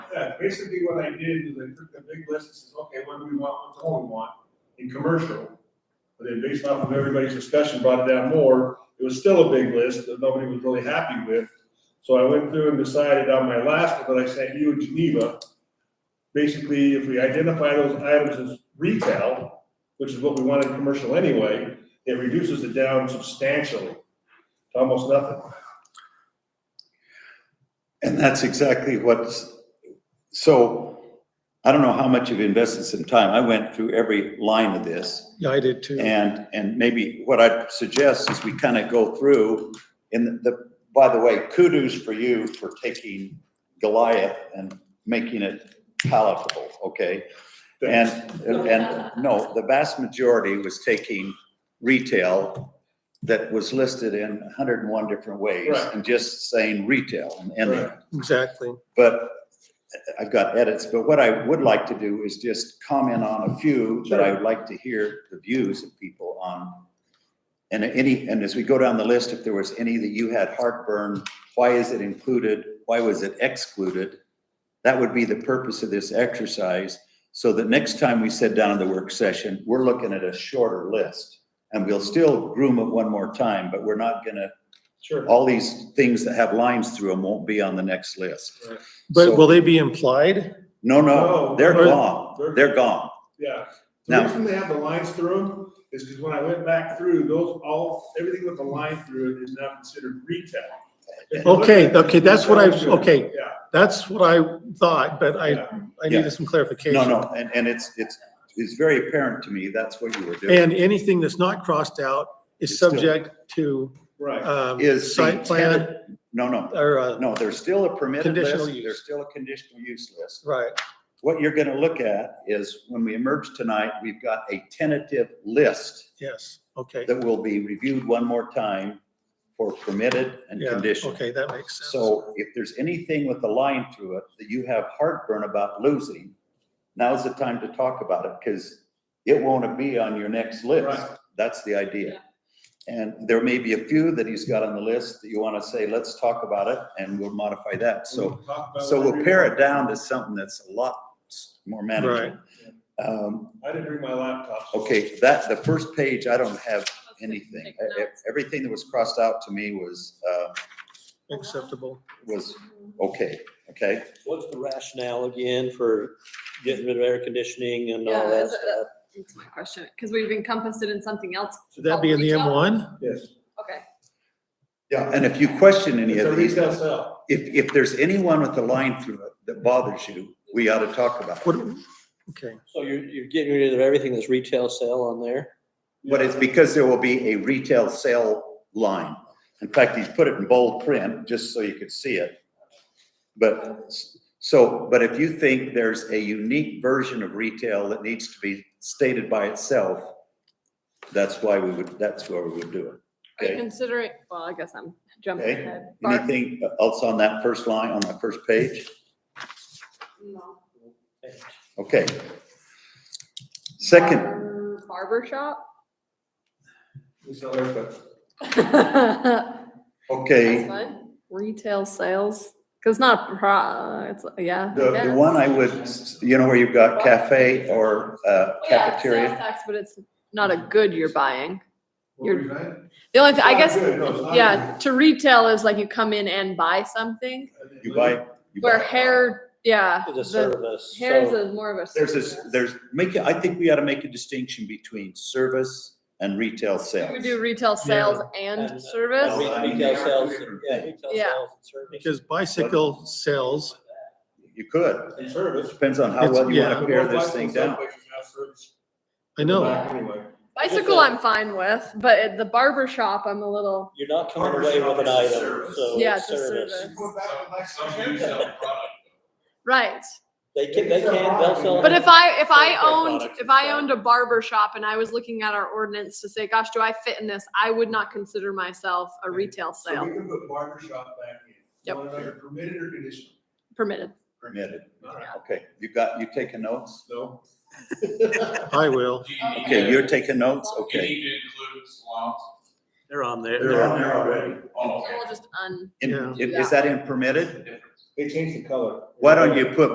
basically what I did is I took the big list and says, okay, what do we want, what don't we want in commercial? But then based off of everybody's discussion, brought it down more. It was still a big list that nobody was really happy with. So I went through and decided on my last one that I sent you in Geneva. Basically, if we identify those items as retail, which is what we want in commercial anyway, it reduces it down substantially, to almost nothing. And that's exactly what's, so I don't know how much you've invested some time. I went through every line of this. Yeah, I did too. And, and maybe what I'd suggest is we kind of go through in the, by the way, kudos for you for taking Goliath and making it palatable, okay? And, Thanks. and, no, the vast majority was taking retail that was listed in hundred and one different ways Right. and just saying retail and ending it. Right. Exactly. But I've got edits, but what I would like to do is just comment on a few that I would like to hear the views of people on. And any, and as we go down the list, if there was any that you had heartburn, why is it included? Why was it excluded? That would be the purpose of this exercise, so that next time we sit down in the work session, we're looking at a shorter list. And we'll still groom it one more time, but we're not gonna, Sure. all these things that have lines through them won't be on the next list. So- But will they be implied? No, no, Oh, No, they're they're- gone. they're- They're gone. Yeah, the Now- reason they have the lines through them is because when I went back through, those all, everything with the line through it is now considered retail. If you look Okay, at it, okay, that's what I was- retail is good. okay. That's what I thought, but Yeah, I, yeah, I needed some clarification. No, no, and, and it's, it's, it's very apparent to me, that's what you were doing. And anything that's not crossed out It's is still- subject to, uh, right. um, Is the site plan tenant- No, no, or, uh, no, there's still a permitted Conditional list, use. there's still a conditional use list. right, What you're gonna look at is, when we emerge tonight, we've got a tentative list yes, okay. that will be reviewed one more time for permitted and Yeah, conditional. okay, that makes sense. So if there's anything with a line through it that you have heartburn about losing, now's the time to talk about it, because it won't be on your next list. Right. That's the idea. And there may be a few that he's got on the list that you want to say, let's talk about it, and we'll modify that. So, We'll talk about so what we'll we- pare it down to something that's a lot more manageable. Um, I didn't bring my laptop. so- okay, that, the first page, I don't have anything. Take E- e- notes. Everything that was crossed out to me was, uh, Acceptable. was okay, okay? What's the rationale again for getting rid of air conditioning and all Yeah, that is it- stuff? That's my question, because we've encompassed it in something else. Should that be in the Retail? M1? Yes, Okay, Yeah, and if you question any it's a of these, retail sale. if, if there's anyone with a line through it that bothers you, we ought to talk about it. What, okay, So you're, you're getting rid of everything that's retail sale on there? But it's because there will be a retail sale line. In fact, he's put it in bold print, just so you could see it. But, s- so, but if you think there's a unique version of retail that needs to be stated by itself, that's why we would, that's where we would do it. are you Okay? considering, well, I guess I'm jumping Okay. ahead. Barb? Anything else on that first line, on that first page? No. Okay. Second, Barber- Barber shop? We sell haircuts. That's Okay, fun. Retail sales, because not, a pro- it's, yeah. I the, the guess. one I would, you know, where you've got cafe or uh, Well, yeah, it's sales cafeteria, Mm-hmm. tax, But it's not a good you're buying. What were you saying? The only, thing I Not guess, good, no, it's not yeah, to retail is like you come in and buy something, good. you buy. you where buy. hair, yeah. It's a the- service, Hair is so- a more of a. There's this, service. there's, make, it- I think we ought to make a distinction between service and retail Should We sales. do retail sales and And- service. Well, I mean, Oh, Retail they're sales, two different yeah, things. retail Yeah. sales and service. because bicycle sales, You could, And service. depends on how It's- well you yeah. want to pare this thing down. I know, Anyway, Bicycle, I'm fine with, but at the barber shop, I'm a little, You're not coming Barber away shop with an is a item, service. so Yeah, it's it's a service. service. Go back to my Some do sell product. right. They can, they It's a can, they'll product. sell. But if I, if I Fair owned, products if and I stuff. owned a barber shop and I was looking at our ordinance to say, gosh, do I fit in this? I would not consider myself a retail So we sale can put barber shop back in. Yep. Want it under Permitted or conditional? permitted. Permitted, All right. okay, you got, you taking notes? No. I will. Do you need Okay, to- you're taking notes, Do you okay. need to include salons? They're on there. They're on there already. Oh, So okay. we'll just un. And Yeah. is that in permitted? They changed the color. Why don't you put